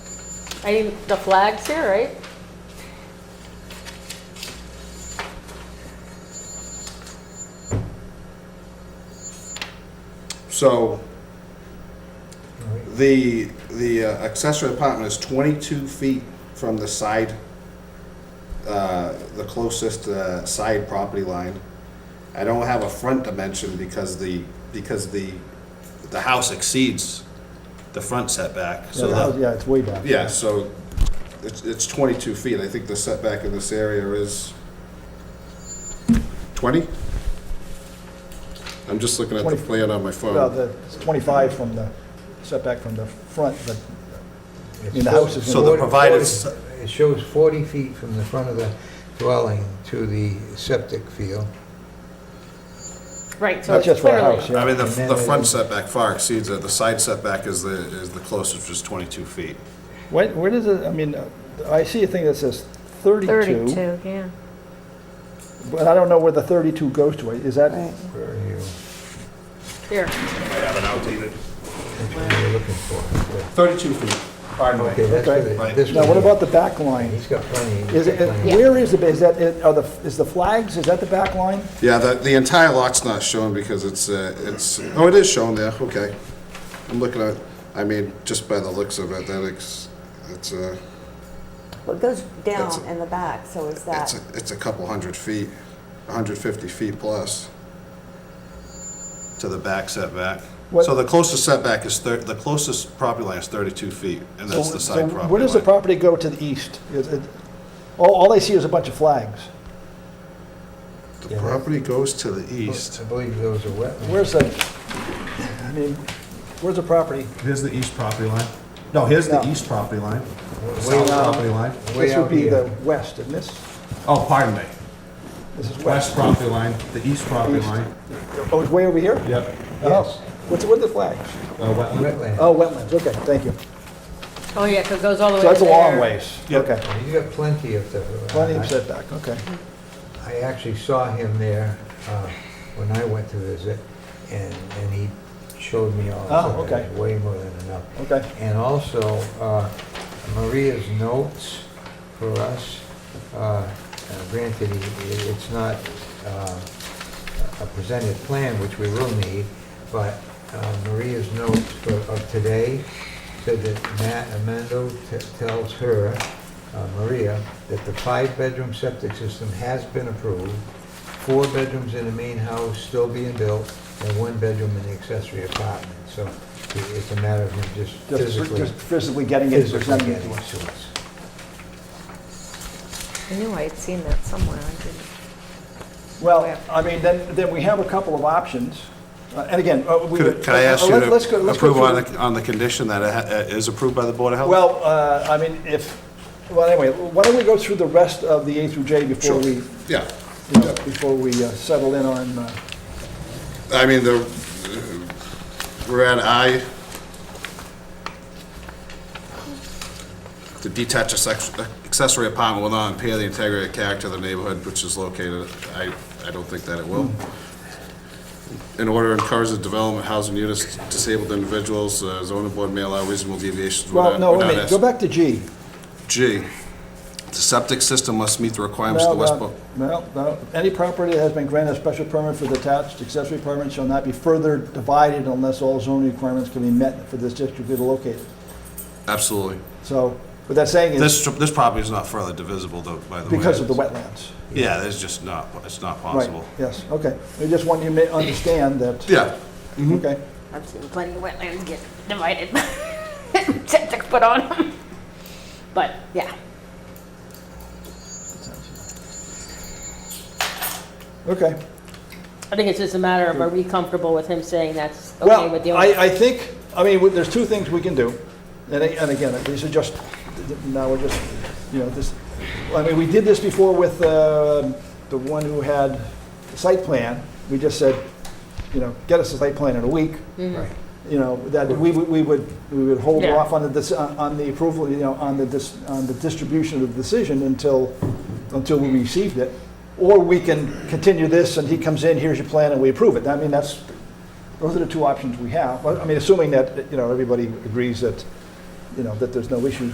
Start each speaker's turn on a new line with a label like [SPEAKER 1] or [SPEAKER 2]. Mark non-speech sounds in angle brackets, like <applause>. [SPEAKER 1] I mean, the flag's here, right?
[SPEAKER 2] So the, the uh, accessory apartment is 22 feet from the side, uh, the closest uh, side property line. I don't have a front dimension because the, because the, the house exceeds the front setback.
[SPEAKER 3] Yeah,
[SPEAKER 2] So
[SPEAKER 3] the house-
[SPEAKER 2] that,
[SPEAKER 3] yeah, it's way back.
[SPEAKER 2] yeah, so it's, it's 22 feet. I think the setback in this area is 20? I'm just looking at the
[SPEAKER 3] 20.
[SPEAKER 2] plan on my phone.
[SPEAKER 3] Well, the, it's 25 from the setback from the front, but mean, the house is-
[SPEAKER 2] So the provided-
[SPEAKER 4] It shows 40 feet from the front of the dwelling to the septic field.
[SPEAKER 1] Right, so
[SPEAKER 3] not
[SPEAKER 1] it's
[SPEAKER 3] just for a
[SPEAKER 1] clearly-
[SPEAKER 3] house,
[SPEAKER 2] I
[SPEAKER 3] yeah.
[SPEAKER 2] mean, the,
[SPEAKER 4] And then
[SPEAKER 2] the
[SPEAKER 4] it
[SPEAKER 2] front
[SPEAKER 4] is-
[SPEAKER 2] setback far exceeds it, the side setback is the, is the closest, which is twenty-two feet.
[SPEAKER 3] Where, where does it, I mean, uh, I see a thing that says 32,
[SPEAKER 1] yeah.
[SPEAKER 3] but I don't know where the 32 goes to. Is that,
[SPEAKER 4] Where are you,
[SPEAKER 1] Here,
[SPEAKER 2] I have it outdated.
[SPEAKER 4] what are you looking for?
[SPEAKER 2] Thirty-two feet, pardon
[SPEAKER 4] Okay, that's
[SPEAKER 3] Okay.
[SPEAKER 4] what
[SPEAKER 2] Right.
[SPEAKER 4] it, this
[SPEAKER 3] now
[SPEAKER 4] one
[SPEAKER 3] what
[SPEAKER 4] here.
[SPEAKER 3] about the back line?
[SPEAKER 4] He's got plenty. he's
[SPEAKER 3] Is it,
[SPEAKER 4] got plenty.
[SPEAKER 3] where is the, is that, it- are the, is the flags, is that the back line?
[SPEAKER 2] Yeah, the, the entire lot's not shown because it's, uh, it's, oh, it is shown there, okay. I'm looking at, I mean, just by the looks of it, that it's, it's uh, a,
[SPEAKER 5] Well, it goes
[SPEAKER 2] That's
[SPEAKER 5] down
[SPEAKER 2] a-
[SPEAKER 5] in the back, so is
[SPEAKER 2] it's
[SPEAKER 5] that,
[SPEAKER 2] a, it's a couple hundred feet, hundred fifty feet plus. To the back setback.
[SPEAKER 3] What-
[SPEAKER 2] So the closest setback is thir, the closest property line is thirty-two feet, and that's
[SPEAKER 3] So-
[SPEAKER 2] the
[SPEAKER 3] so
[SPEAKER 2] side property line.
[SPEAKER 3] Where does the property go to the east? Is it- All, all I see is a bunch of flags.
[SPEAKER 2] The property goes to the east.
[SPEAKER 4] I believe those are wetlands.
[SPEAKER 3] Where's the, I mean, where's the property?
[SPEAKER 6] Oh, Here's the east property line. No, here's the
[SPEAKER 3] No.
[SPEAKER 6] east property line.
[SPEAKER 4] Way
[SPEAKER 6] South
[SPEAKER 4] out-
[SPEAKER 6] property line.
[SPEAKER 4] way
[SPEAKER 3] This would
[SPEAKER 4] out
[SPEAKER 3] be
[SPEAKER 4] here.
[SPEAKER 3] the west, and this,
[SPEAKER 6] Oh, pardon me.
[SPEAKER 3] this is
[SPEAKER 6] West
[SPEAKER 3] west.
[SPEAKER 6] property line, the east property
[SPEAKER 3] East.
[SPEAKER 6] line.
[SPEAKER 3] Oh, it's way over here?
[SPEAKER 6] Yep.
[SPEAKER 3] Oh, what's, what are the flags?
[SPEAKER 6] Uh, wetland.
[SPEAKER 4] Wetland.
[SPEAKER 3] Oh, wetlands, okay, thank you.
[SPEAKER 1] oh yeah, 'cause it goes all the way
[SPEAKER 3] So
[SPEAKER 1] to there.
[SPEAKER 3] that's a long ways.
[SPEAKER 6] Yep.
[SPEAKER 3] Okay.
[SPEAKER 4] He's got plenty of the.
[SPEAKER 3] Plenty
[SPEAKER 4] I-
[SPEAKER 3] of setback, okay.
[SPEAKER 4] I actually saw him there uh, when I went to visit, and, and he showed me all
[SPEAKER 3] Ah,
[SPEAKER 4] of
[SPEAKER 3] okay.
[SPEAKER 4] it, way more than enough.
[SPEAKER 3] Okay.
[SPEAKER 4] And also, uh, Maria's notes for us, uh, uh, granted, he- he- it's not uh, a presented plan, which we will need, but uh, Maria's notes for- of today said that Matt Amendo t- tells her, uh, Maria, that the five-bedroom septic system has been approved, four bedrooms in the main house still being built, and one bedroom in the accessory apartment. So i- it's a matter of him just
[SPEAKER 3] Just
[SPEAKER 4] physically,
[SPEAKER 3] just physically getting it,
[SPEAKER 4] physically
[SPEAKER 3] presenting it
[SPEAKER 4] getting
[SPEAKER 3] to
[SPEAKER 4] to
[SPEAKER 3] us.
[SPEAKER 4] us.
[SPEAKER 1] I knew I had seen that somewhere, I didn't.
[SPEAKER 3] Well, I mean, then, then we have a couple of options. Uh, And again, uh, we.
[SPEAKER 2] Could, could I ask you
[SPEAKER 3] Let- let's go-
[SPEAKER 2] to
[SPEAKER 3] let's go
[SPEAKER 2] approve on
[SPEAKER 3] through-
[SPEAKER 2] the, on the condition that it ha- uh, is approved by the Board of Health?
[SPEAKER 3] Well, uh, I mean, if, well, anyway, why don't we go through the rest of the A through J
[SPEAKER 2] Sure.
[SPEAKER 3] before we,
[SPEAKER 2] Yeah,
[SPEAKER 3] you know, before we uh, settle in on, uh,
[SPEAKER 2] I mean, the, we're at I. The detached accex- accessory apartment will not impair the integrity and character of the neighborhood which is located. I, I don't think that it will. In order to encourage the development of housing units, disabled individuals, uh, zoning board may allow reasonable deviations without.
[SPEAKER 3] well, no, wait a
[SPEAKER 2] without
[SPEAKER 3] minute, go
[SPEAKER 2] ask-
[SPEAKER 3] back to G.
[SPEAKER 2] G, the septic system must meet the requirements
[SPEAKER 3] No,
[SPEAKER 2] of the West
[SPEAKER 3] no,
[SPEAKER 2] Boylston.
[SPEAKER 3] no, no. uh, any property that has been granted a special permit for detached accessory apartment shall not be further divided unless all zoning requirements can be met for this district to be located.
[SPEAKER 2] Absolutely.
[SPEAKER 3] So, what that's saying is,
[SPEAKER 2] This, this property is not further divisible though, by the way.
[SPEAKER 3] because of the wetlands.
[SPEAKER 2] Yeah, there's just not, it's not
[SPEAKER 3] Right,
[SPEAKER 2] possible.
[SPEAKER 3] yes, okay. I just want you to ma- understand that.
[SPEAKER 2] Yeah, Mm-hmm.
[SPEAKER 3] Okay,
[SPEAKER 1] I've seen plenty of wetlands get divided, <laughs> septic put on 'em. But, yeah.
[SPEAKER 3] okay.
[SPEAKER 1] I think it's just a matter of, are we comfortable with him saying that's okay with the
[SPEAKER 3] Well,
[SPEAKER 1] owner?
[SPEAKER 3] I, I think, I mean, there's two things we can do, and, a- and again, these are just, now we're just, you know, this, I mean, we did this before with, uh, the one who had the site plan, we just said, you know, get us a site plan in a week,
[SPEAKER 4] Right.
[SPEAKER 3] you know, that we would, we would, we would hold
[SPEAKER 1] Yeah.
[SPEAKER 3] off on the, dis- on on the approval, you know, on the, dis- on the distribution of the decision until, until we received it. Or we can continue this and he comes in, here's your plan, and we approve it. I mean, that's, those are the two options we have. But, I mean, assuming that, you know, everybody agrees that, you know, that there's no issues